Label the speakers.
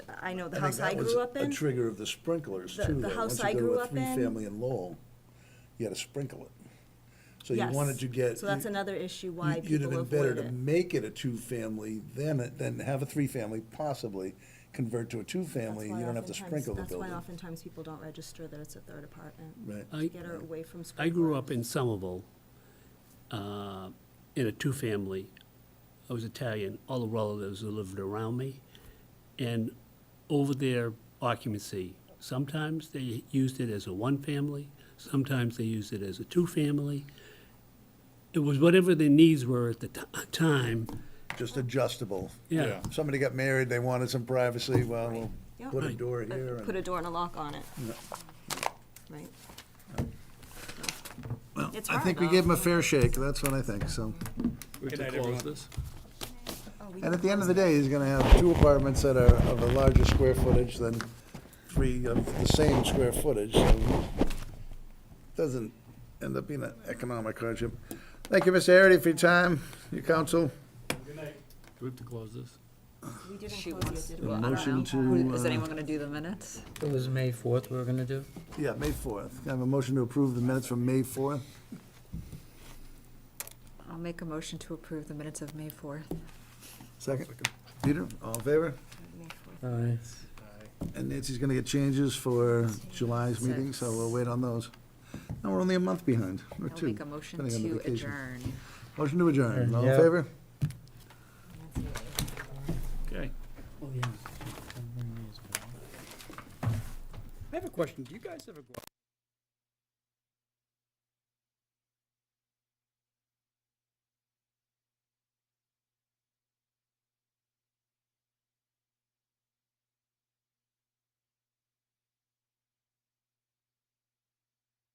Speaker 1: I know the
Speaker 2: think
Speaker 1: house I
Speaker 2: that was
Speaker 1: grew up in.
Speaker 2: A trigger of the sprinklers
Speaker 1: The-
Speaker 2: too.
Speaker 1: the
Speaker 2: though.
Speaker 1: house
Speaker 2: Once you
Speaker 1: I
Speaker 2: go to
Speaker 1: grew
Speaker 2: a
Speaker 1: up in-
Speaker 2: Three-family in Lowell, you had to sprinkle it. So you
Speaker 1: Yes.
Speaker 2: wanted to get.
Speaker 1: So that's
Speaker 2: you-
Speaker 1: another issue why
Speaker 2: you- You'd have
Speaker 1: people
Speaker 2: been better
Speaker 1: avoid
Speaker 2: to
Speaker 1: it.
Speaker 2: make it a two-family than, it- than have a three-family possibly convert to a
Speaker 1: That's
Speaker 2: two-family. You
Speaker 1: why
Speaker 2: don't have to
Speaker 1: oftentimes-
Speaker 2: sprinkle the
Speaker 1: That's why
Speaker 2: building.
Speaker 1: oftentimes people don't register that it's a third apartment.
Speaker 2: Right.
Speaker 1: To
Speaker 3: I-
Speaker 1: Get her away from school.
Speaker 3: I grew up in Somerville, uh, in a two-family. I was Italian, all the relatives who lived around me. And over their occupancy, sometimes they used it as a one-family, sometimes they used it as a two-family. It was whatever their needs were at the ti- time,
Speaker 2: Just adjustable.
Speaker 3: yeah.
Speaker 2: Somebody got married, they wanted some privacy, well, we'll
Speaker 1: Yep.
Speaker 2: put a
Speaker 3: Right.
Speaker 2: door
Speaker 1: But
Speaker 2: here.
Speaker 1: Put
Speaker 2: and-
Speaker 1: a door and a lock on it. Right?
Speaker 2: Well,
Speaker 1: It's
Speaker 2: I think we
Speaker 1: hard,
Speaker 2: gave them a fair shake, that's what I think, so.
Speaker 4: We have to close this?
Speaker 1: Oh, we
Speaker 2: And
Speaker 1: can
Speaker 2: at the end of the day, he's gonna have two apartments that are of a larger square footage than three of the same square footage, so doesn't end up being an economic hardship. Thank you, Mr. Harity, for your time, your counsel.
Speaker 4: Do we have to close this?
Speaker 1: We didn't
Speaker 5: She
Speaker 1: close
Speaker 5: wants
Speaker 1: yet,
Speaker 5: to
Speaker 1: did we?
Speaker 5: I don't know. Who-
Speaker 2: uh,
Speaker 5: Is anyone gonna do the minutes?
Speaker 6: It was May 4th we were going to do?
Speaker 2: Yeah, May fourth. I have a motion to approve the minutes from May fourth.
Speaker 5: I'll make a motion to approve the minutes of May fourth.
Speaker 2: Second. Peter, all in favor?
Speaker 6: Aye.
Speaker 2: And Nancy's gonna get changes for July's meeting, so we'll wait on those. Now, we're only a month behind, or
Speaker 5: I'll
Speaker 2: two.
Speaker 5: make a motion
Speaker 2: depending on
Speaker 5: to
Speaker 2: vacation.
Speaker 5: adjourn.
Speaker 2: Motion to adjourn, all in
Speaker 6: Yeah.
Speaker 2: favor?
Speaker 4: Okay.
Speaker 6: Oh, yeah.
Speaker 7: I have a question. Do you guys ever go